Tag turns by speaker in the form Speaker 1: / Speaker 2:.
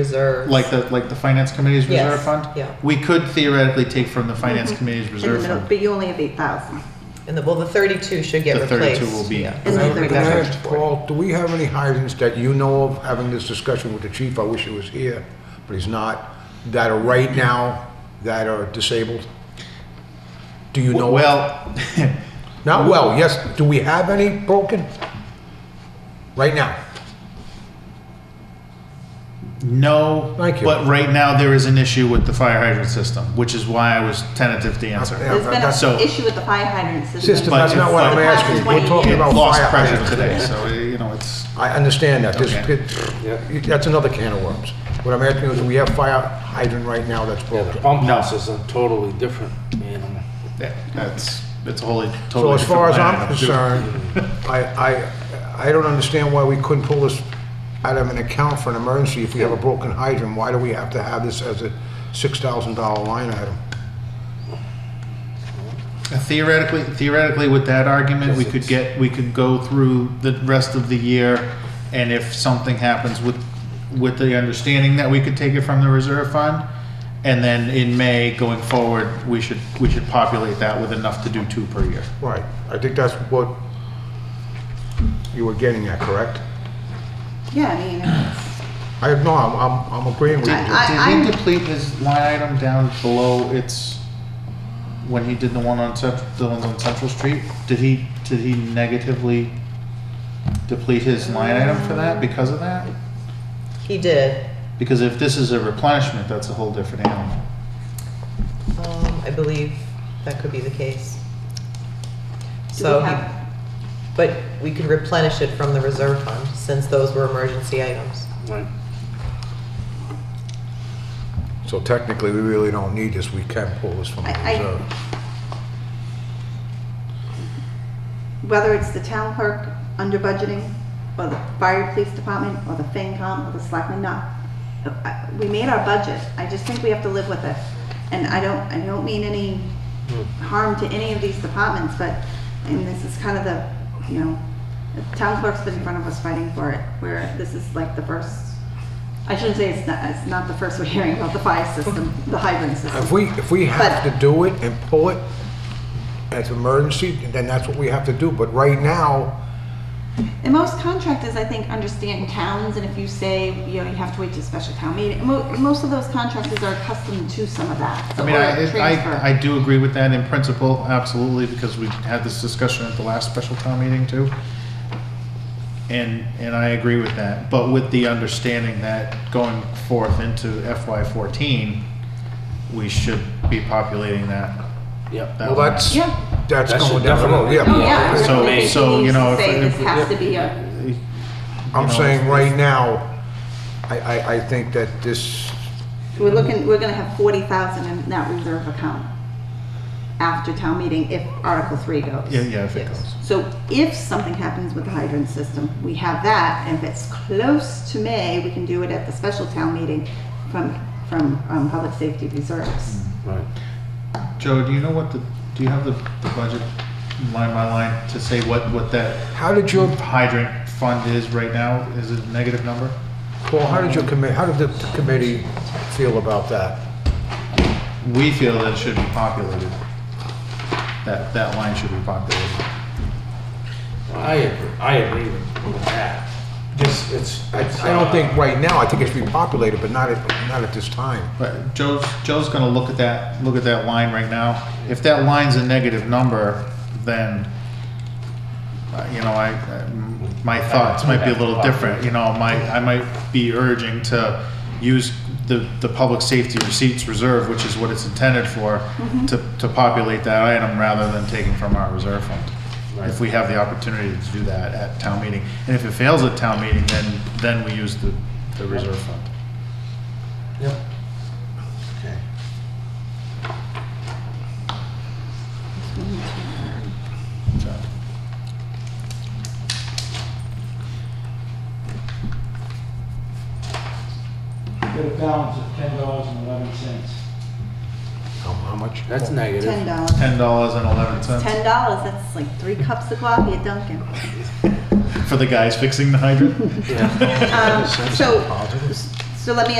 Speaker 1: reserve.
Speaker 2: like the, like the finance committee's
Speaker 1: Yes,
Speaker 2: reserve fund?
Speaker 1: yeah. Mm-hmm.
Speaker 2: We could theoretically take from the finance committee's
Speaker 3: in the
Speaker 2: reserve
Speaker 3: middle,
Speaker 2: fund.
Speaker 3: but you only have eight thousand.
Speaker 1: And the, well, the thirty-two should get
Speaker 2: The
Speaker 1: replaced.
Speaker 2: 32 will be-
Speaker 1: yeah.
Speaker 3: And
Speaker 1: I
Speaker 3: then
Speaker 1: agree
Speaker 3: the
Speaker 1: with that.
Speaker 3: third-
Speaker 4: Ask Paul, do we have any hydrants that you know of, having this discussion with the chief, I wish he was here, but he's not, that are right now, that are disabled? Do you know? of?
Speaker 2: Well,
Speaker 4: Not well, yes, do we have any broken? Right now?
Speaker 2: no,
Speaker 4: Thank you.
Speaker 2: but right now there is an issue with the fire hydrant system, which is why I was tentative to answer.
Speaker 4: Yeah,
Speaker 3: There's been
Speaker 4: that's-
Speaker 2: so-
Speaker 3: an issue with the fire hydrant
Speaker 4: System,
Speaker 3: system.
Speaker 4: that's
Speaker 2: But
Speaker 4: not
Speaker 2: if
Speaker 4: what
Speaker 2: I-
Speaker 4: I'm asking, we're talking
Speaker 2: It
Speaker 4: about
Speaker 2: lost
Speaker 4: fire
Speaker 2: pressure
Speaker 4: hydrants.
Speaker 2: today, so, you know, it's,
Speaker 4: I understand that, This-
Speaker 2: Okay.
Speaker 4: it- that's another can of worms. What I'm asking is, do we have fire hydrant right now that's
Speaker 5: Yeah, the
Speaker 4: broken?
Speaker 5: pump
Speaker 2: No.
Speaker 5: house is a totally different animal.
Speaker 2: that- that's, it's a wholly,
Speaker 4: So
Speaker 2: totally.
Speaker 4: as far as
Speaker 2: different
Speaker 4: I'm
Speaker 2: line item.
Speaker 4: concerned, I, I, I don't understand why we couldn't pull this out of an account for an emergency if we have a broken hydrant. Why do we have to have this as a six thousand dollar line item?
Speaker 2: Theoretically, theoretically, with that argument, we could get, we could go through the rest of the year, and if something happens with, with the understanding that we could take it from the reserve fund, and then in May, going forward, we should, we should populate that with enough to do two per year.
Speaker 4: Right, I think that's what you were getting at, correct?
Speaker 3: Yeah, I mean,
Speaker 4: I, no, I'm, I'm, I'm agreeing with you.
Speaker 3: I-
Speaker 2: Did
Speaker 3: I'm-
Speaker 2: he deplete his line item down below its, when he did the one on Central, the ones on Central Street? Did he, did he negatively deplete his line item for that, because of that?
Speaker 1: He did,
Speaker 2: Because if this is a replenishment, that's a whole different animal.
Speaker 1: um, I believe that could be the case.
Speaker 3: do we
Speaker 1: So, he-
Speaker 3: have,
Speaker 1: but we could replenish it from the reserve fund, since those were emergency items.
Speaker 5: Right.
Speaker 4: So technically, we really don't need this, we can pull this from the
Speaker 3: I- I-
Speaker 4: reserve.
Speaker 3: whether it's the town clerk under budgeting, or the fire police department, or the FinCom, or the selectmen, no. I- We made our budget, I just think we have to live with it. And I don't, I don't mean any harm to any of these departments, but, and this is kind of the, you know, the town clerk's been in front of us fighting for it, where this is like the first, I shouldn't say it's not, it's not the first we're hearing about the fire system, the hydrant system.
Speaker 4: If we, if we have
Speaker 3: But-
Speaker 4: to do it and pull it as emergency, then that's what we have to do, but right now,
Speaker 3: And most contractors, I think, understand towns, and if you say, you know, you have to wait to a special town meeting, mo- most of those contractors are accustomed to some of that.
Speaker 2: I mean, I,
Speaker 3: or
Speaker 2: it-
Speaker 3: transfer.
Speaker 2: I, I do agree with that in principle, absolutely, because we had this discussion at the last special town meeting too. And, and I agree with that, but with the understanding that going forth into FY fourteen, we should be populating that.
Speaker 5: Yep.
Speaker 2: that
Speaker 4: well,
Speaker 2: line.
Speaker 4: that's,
Speaker 3: Yeah.
Speaker 4: that's
Speaker 5: That
Speaker 4: going
Speaker 5: should
Speaker 4: down the road,
Speaker 5: definitely-
Speaker 3: Oh,
Speaker 4: yeah.
Speaker 3: yeah.
Speaker 2: So-
Speaker 3: I think
Speaker 2: so,
Speaker 3: we
Speaker 2: you know,
Speaker 3: need to
Speaker 2: if-
Speaker 3: Say
Speaker 2: if-
Speaker 3: this has to be a,
Speaker 2: You
Speaker 4: I'm
Speaker 2: know,
Speaker 4: saying
Speaker 2: if-
Speaker 4: right now, I, I, I think that this,
Speaker 3: we're looking, we're gonna have forty thousand in that reserve account after town meeting if Article Three goes.
Speaker 2: Yeah, yeah, if it goes.
Speaker 3: So if something happens with the hydrant system, we have that, and if it's close to May, we can do it at the special town meeting from, from, um, public safety reserves.
Speaker 5: Right.
Speaker 2: Joe, do you know what the, do you have the, the budget line by line to say what, what that
Speaker 4: how did your,
Speaker 2: hydrant fund is right now? Is it a negative number?
Speaker 4: Paul, how did your committee, how did the committee feel about that?
Speaker 2: We feel that it should be populated. That, that line should be populated.
Speaker 5: I agree, I agree with with that. Just, it's.
Speaker 4: I,
Speaker 5: it's,
Speaker 4: I don't
Speaker 5: uh,
Speaker 4: think right now, I think it's repopulated, but not at, not at this time.
Speaker 2: But Joe's, Joe's gonna look at that, look at that line right now. If that line's a negative number, then, uh, you know, I, I- my thoughts might be a little different, you know, my, I might be urging to use the, the public safety receipts reserve, which is what it's intended for, to, to populate that item rather than taking from our reserve fund. If we have the opportunity to do that at town meeting. And if it fails at town meeting, then, then we use the, the reserve fund.
Speaker 5: Yep.
Speaker 2: So.
Speaker 6: Get a balance of ten dollars and eleven cents.
Speaker 4: How, Oh, how much?
Speaker 5: That's negative.
Speaker 3: Ten dollars.
Speaker 2: Ten dollars and eleven cents
Speaker 3: Ten dollars, that's like three cups of coffee at Dunkin'.
Speaker 2: for the guys fixing the hydrant.
Speaker 5: Yeah.
Speaker 3: Um, so,
Speaker 4: Positive?
Speaker 3: so let me